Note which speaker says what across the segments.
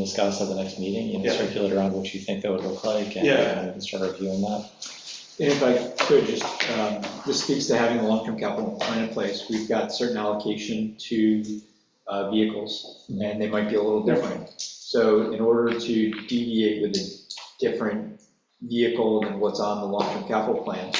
Speaker 1: discuss at the next meeting, you know,
Speaker 2: Yeah.
Speaker 1: circulate around what you think that would look like, and
Speaker 2: Yeah.
Speaker 1: uh, we can start reviewing that.
Speaker 3: And if I could, just, um, this speaks to having a long-term capital plan in place. We've got certain allocation to uh, vehicles, and they might be a little different. So in order to deviate with a different vehicle than what's on the long-term capital plan,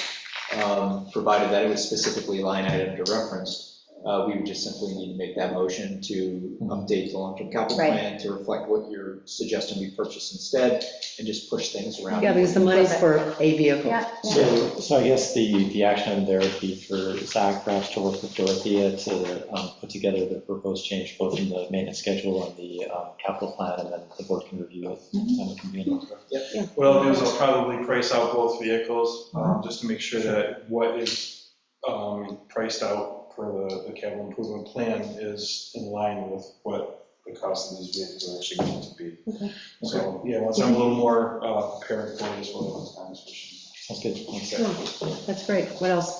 Speaker 3: um, provided that it was specifically line item to reference, uh, we would just simply need to make that motion to update the long-term capital
Speaker 4: Right.
Speaker 3: plan to reflect what you're suggesting we purchase instead, and just push things around.
Speaker 4: Yeah, because the money's for a vehicle.
Speaker 5: Yeah, yeah.
Speaker 1: So, so I guess the, the action there would be for Zach perhaps to work with Dorothea to um, put together the proposed change, both in the maintenance schedule and the um, capital plan, and then the board can review it. and it can be an-
Speaker 2: What I'll do is I'll probably price out both vehicles,
Speaker 5: Uh-huh.
Speaker 2: um, just to make sure that what is um, priced out for the the capital improvement plan is in line with what the cost of these vehicles are actually going to be.
Speaker 5: Okay.
Speaker 2: So, yeah, once I'm a little more uh, prepared for this, we'll have a conversation.
Speaker 1: Sounds good. Thanks.
Speaker 4: Oh, That's great. What else?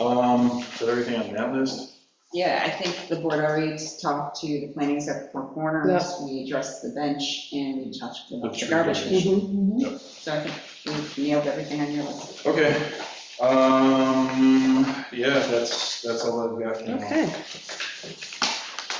Speaker 2: Um, Is that everything on that list?
Speaker 6: Yeah, I think the board already talked to the planning except for corners, we addressed the bench, and we talked about the
Speaker 2: tree
Speaker 6: garbage
Speaker 2: bench.
Speaker 6: issue.
Speaker 4: Mm-hmm.
Speaker 2: Yep.
Speaker 6: So I think we nailed everything on your list.
Speaker 2: Okay. Um, Yeah, that's, that's all I've got for now.
Speaker 4: Mm-hmm. Okay.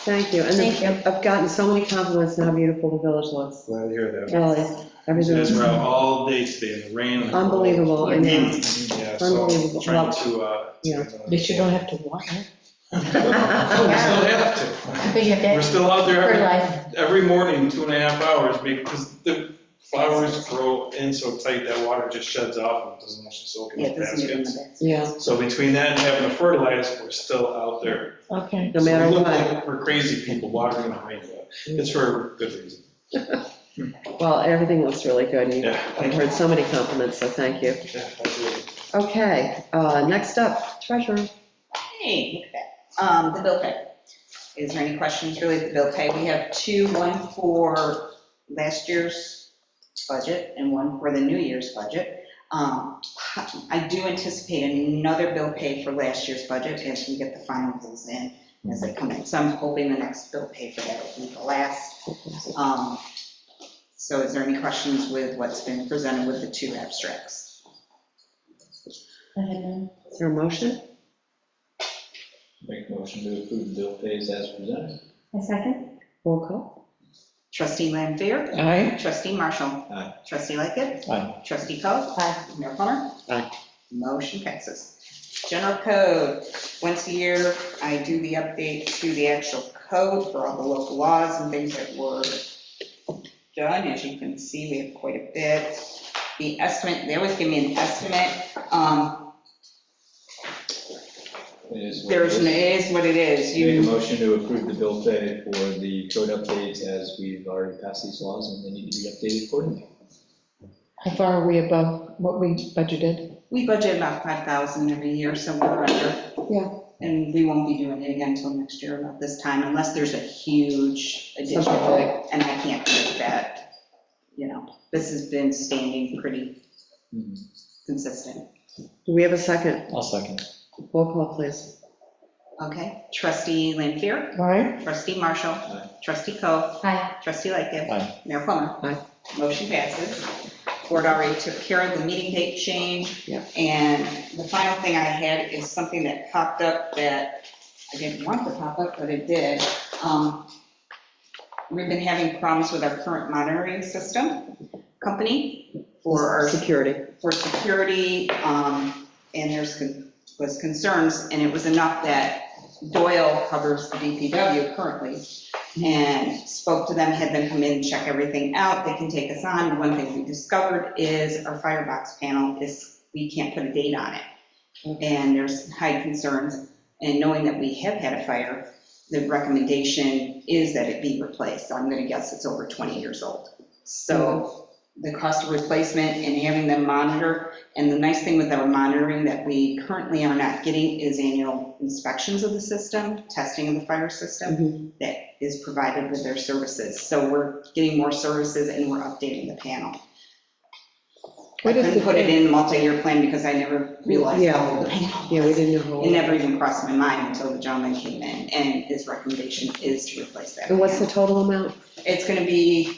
Speaker 4: Thank you. And
Speaker 5: Thank
Speaker 4: then I've gotten so many compliments on how beautiful the village looks.
Speaker 2: Glad to hear that.
Speaker 4: Really,
Speaker 2: Yes,
Speaker 4: everything's
Speaker 2: we're out all day today in the rain. and the cold.
Speaker 4: unbelievable. I know.
Speaker 2: Yeah, so
Speaker 4: Unbelievable.
Speaker 2: trying to, uh.
Speaker 4: Yeah.
Speaker 5: But you don't have to water.
Speaker 2: Oh, We still have
Speaker 5: But you have
Speaker 2: to. We're
Speaker 5: to
Speaker 2: still out there every,
Speaker 5: fertilize.
Speaker 2: every morning, two and a half hours, because the flowers grow in so tight that water just sheds off and doesn't actually soak
Speaker 6: Yeah,
Speaker 2: in
Speaker 6: it
Speaker 2: the
Speaker 6: doesn't get in the
Speaker 2: baskets.
Speaker 6: basket.
Speaker 4: Yeah,
Speaker 2: So between that and having to fertilize, we're still out there.
Speaker 5: Okay.
Speaker 4: no
Speaker 2: So we
Speaker 4: matter
Speaker 2: look
Speaker 4: what.
Speaker 2: like We're crazy people watering the rain, but it's for a good reason.
Speaker 4: Well, everything looks really good. and
Speaker 2: Yeah,
Speaker 4: I've
Speaker 2: thank you.
Speaker 4: heard so many compliments, so thank you.
Speaker 2: Yeah, absolutely.
Speaker 4: Okay, uh, next up, treasurer.
Speaker 6: Hey, look at that. Um, the bill pay. Is there any questions related to the bill pay? We have two, one for last year's budget and one for the new year's budget. Um, I do anticipate another bill pay for last year's budget as we get the final bills in, as they come in. So I'm hoping the next bill pay for that will be the last. Um, So is there any questions with what's been presented with the two abstracts?
Speaker 4: Is there a motion?
Speaker 3: Make a motion to approve the bill pays as presented.
Speaker 5: A second?
Speaker 4: Roll call.
Speaker 6: Trustee Lampier?
Speaker 4: Aye.
Speaker 6: Trustee Marshall?
Speaker 3: Aye.
Speaker 6: Trustee Lightkit?
Speaker 1: Aye.
Speaker 6: Trustee Coe?
Speaker 5: Aye.
Speaker 6: Mayor Plummer?
Speaker 4: Aye.
Speaker 6: Motion passes. General code, once a year, I do the update to the actual code for all the local laws and things that were done. As you can see, we have quite a bit. The estimate, they always give me an estimate. Um,
Speaker 3: It is what it
Speaker 6: There's,
Speaker 3: is.
Speaker 6: it is what it is.
Speaker 3: Make a
Speaker 6: You,
Speaker 3: motion to approve the bill pay for the code updates as we've already passed these laws and they need to be updated accordingly.
Speaker 5: How far are we above what we budgeted?
Speaker 6: we budget about 5,000 every year, so we're under.
Speaker 5: Yeah.
Speaker 6: And we won't be doing it again until next year about this time unless there's a huge
Speaker 4: Something
Speaker 6: additional. And I can't predict that, you know, this has been standing pretty consistent.
Speaker 4: Do we have a second?
Speaker 1: I'll second.
Speaker 4: Roll call, please.
Speaker 6: Okay, trustee Lampier,
Speaker 5: Aye.
Speaker 6: trustee Marshall,
Speaker 3: Aye.
Speaker 6: trustee Coe,
Speaker 5: Aye.
Speaker 6: trustee Lightgev.
Speaker 1: Aye.
Speaker 6: Mayor Plummer.
Speaker 4: Aye.
Speaker 6: Motion passes. Board already took care of the meeting date change.
Speaker 4: Yep.
Speaker 6: And the final thing I had is something that popped up that I didn't want to pop up, but it did. Um, We've been having problems with our current monitoring system company for our
Speaker 4: Security.
Speaker 6: for security, um, and there's, con- was concerns, and it was enough that Doyle covers the DPW currently, and spoke to them, had them come in, check everything out, they can take us on. The One thing we discovered is our firebox panel is, we can't put a date on it. And there's high concerns, and knowing that we have had a fire, the recommendation is that it be replaced. I'm gonna guess it's over 20 years old. So the cost of replacement and having them monitor. And the nice thing with our monitoring that we currently are not getting is annual inspections of the system, testing of the fire
Speaker 4: Mhm.
Speaker 6: system that is provided with their services. So we're getting more services and we're updating the panel. I
Speaker 5: What is
Speaker 6: couldn't
Speaker 5: the-
Speaker 6: put it in multi-year plan because I never realized
Speaker 4: Yeah.
Speaker 6: how old the panel
Speaker 4: Yeah, we
Speaker 6: was.
Speaker 4: didn't know.
Speaker 6: It never even crossed my mind until the gentleman came in and his recommendation is to replace that.
Speaker 4: And what's the
Speaker 6: panel.
Speaker 4: total amount?
Speaker 6: It's gonna be